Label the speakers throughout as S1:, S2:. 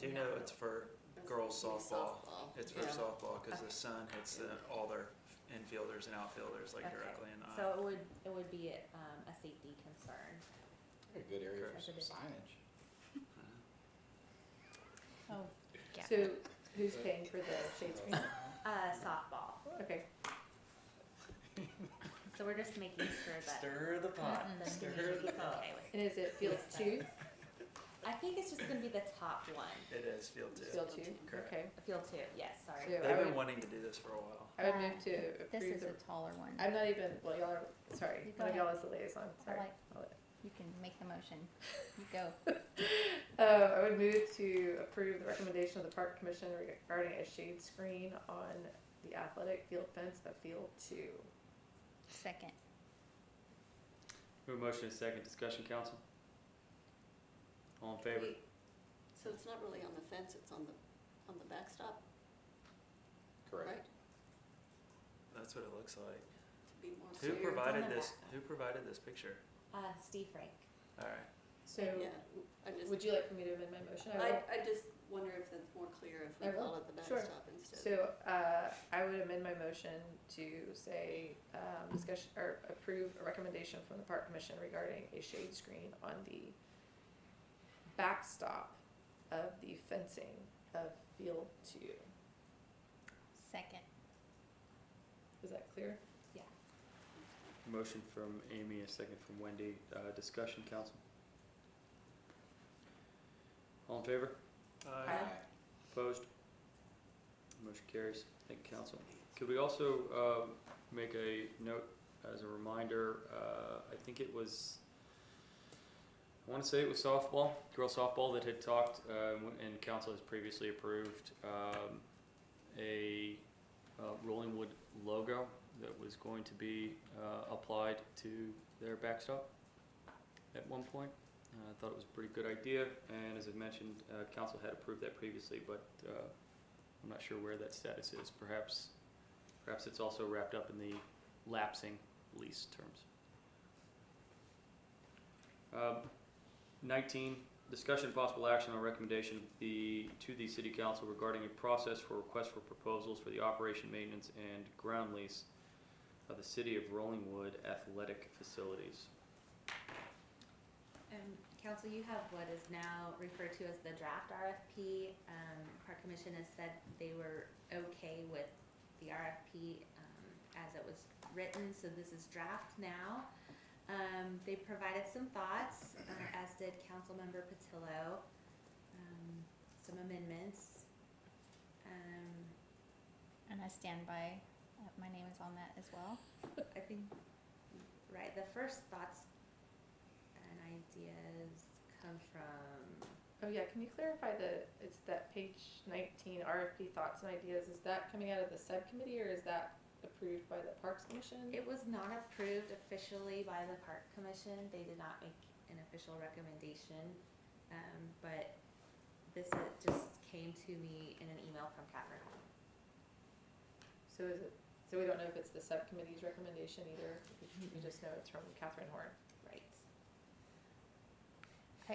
S1: do know it's for girls softball. It's for
S2: Yeah.
S1: softball because the
S3: Okay.
S1: sun hits the, all their infielders and outfielders like
S3: Okay.
S1: directly in the eye.
S3: So it would, it would be, um, a safety concern.
S4: A good area for
S3: That's
S4: some
S3: a good-
S4: signage.
S3: Oh. Yeah.
S2: So who's paying for the shade screen?
S3: Uh, softball.
S2: Okay,
S3: So we're just making sure that
S4: Stir the pot.
S2: Mm-hmm.
S3: the
S4: Stir
S3: community's
S4: the pot.
S3: okay with it.
S2: and is it field two?
S3: I think it's just gonna be the top one,
S1: It is field two.
S2: Field two,
S1: Correct.
S2: okay.
S3: field two, yes, sorry.
S2: So I
S1: They've been
S2: would-
S1: wanting to do this for a while.
S2: I would
S5: Uh,
S2: move to
S5: This
S2: approve
S5: is
S2: the,
S5: a taller one.
S2: I'm not even, well, y'all are, sorry,
S5: You go
S2: one of
S5: ahead.
S2: y'all is the liaison, sorry.
S5: like-
S2: I'll let-
S5: You can make the motion. You go.
S2: Uh, I would move to approve the recommendation of the park commission regarding a shade screen on the athletic field fence of field two.
S5: Second.
S6: We have a motion and a second. Discussion, council? All in favor?
S7: Wait, So it's not really on the fence, it's on the, on the backstop, right?
S4: Correct.
S1: That's what it looks like.
S7: To be more.
S1: Who
S3: it's
S1: provided
S3: on the
S1: this,
S3: back.
S1: who provided this picture?
S3: Uh, Steve Frank.
S1: All right.
S2: So,
S7: Yeah, I
S2: would
S7: just,
S2: you like for me to amend my motion?
S7: I, I just wonder if that's more clear if we
S2: I will.
S7: call it the
S2: Sure.
S7: backstop instead.
S2: So, uh, I would amend my motion to say, um, discussion, or approve a recommendation from the park commission regarding a shade screen on the backstop of the fencing of field two.
S5: Second.
S2: Is that clear?
S6: Motion from Amy, a second from Wendy. Uh, discussion, council? All in favor?
S1: Uh,
S2: Aye.
S6: Opposed? Motion carries. Thank you, council. Could we also, um make a note as a reminder, uh, I think it was, I wanna say it was softball, girls softball that had talked, uh, and council has previously approved, um, a, uh, Rolling Wood logo that was going to be, uh, applied to their backstop at one point. Uh, I thought it was a pretty good idea, and as I mentioned, uh, council had approved that previously, but uh, I'm not sure where that status is. Perhaps, perhaps it's also wrapped up in the lapsing lease terms. Um, 19, discussion and possible action on recommendation of the, to the city council regarding a process for request for proposals for the operation, maintenance, and ground lease of the city of Rolling Wood athletic facilities.
S3: Um, council, you have what is now referred to as the draft RFP. Um, park commission has said they were okay with the RFP, um, as it was written, so this is draft now. Um, they provided some thoughts, uh, as did councilmember Patillo, um, some amendments. Um,
S5: And I stand by. Uh, my name is on that as well.
S3: I think, right, the first thoughts and ideas come from
S2: Oh yeah, can you clarify the, it's that page nineteen RFP thoughts and ideas, is that coming out of the subcommittee or is that approved by the Parks Commission?
S3: It was not approved officially by the park commission, they did not make an official recommendation, um, but this uh, just came to me in an email from Catherine.
S2: So is it, so we don't know if it's the subcommittee's recommendation either, we just know it's from Catherine Horn.
S3: Right.
S5: Uh,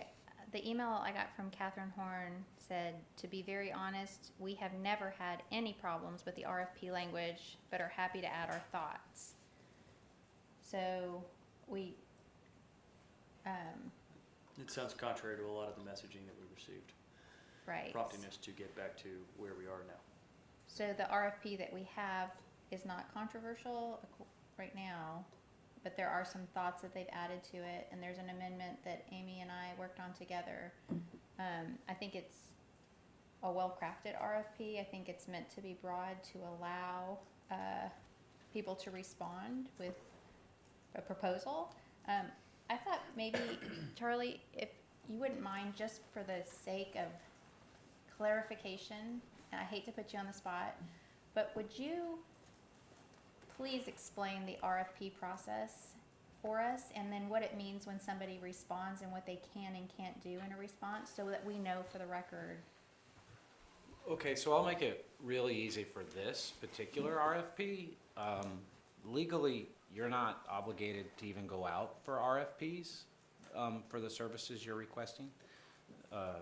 S5: The email I got from Catherine Horn said, "To be very honest, we have never had any problems with the RFP language, but are happy to add our thoughts." So we. Um,
S6: It sounds contrary to a lot of the messaging that we received,
S5: right.
S6: prompting us to get back to where we are now.
S5: So the RFP that we have is not controversial ac- right now, but there are some thoughts that they've added to it, and there's an amendment that Amy and I worked on together. Um, I think it's a well-crafted RFP. I think it's meant to be broad to allow uh, people to respond with a proposal. Um, I thought maybe Charlie, if you wouldn't mind, just for the sake of clarification, and I hate to put you on the spot, but would you please explain the RFP process for us and then what it means when somebody responds and what they can and can't do in a response so that we know for the record?
S4: Okay, so I'll make it really easy for this particular RFP. Um, legally, you're not obligated to even go out for RFPs, um, for the services you're requesting. Uh,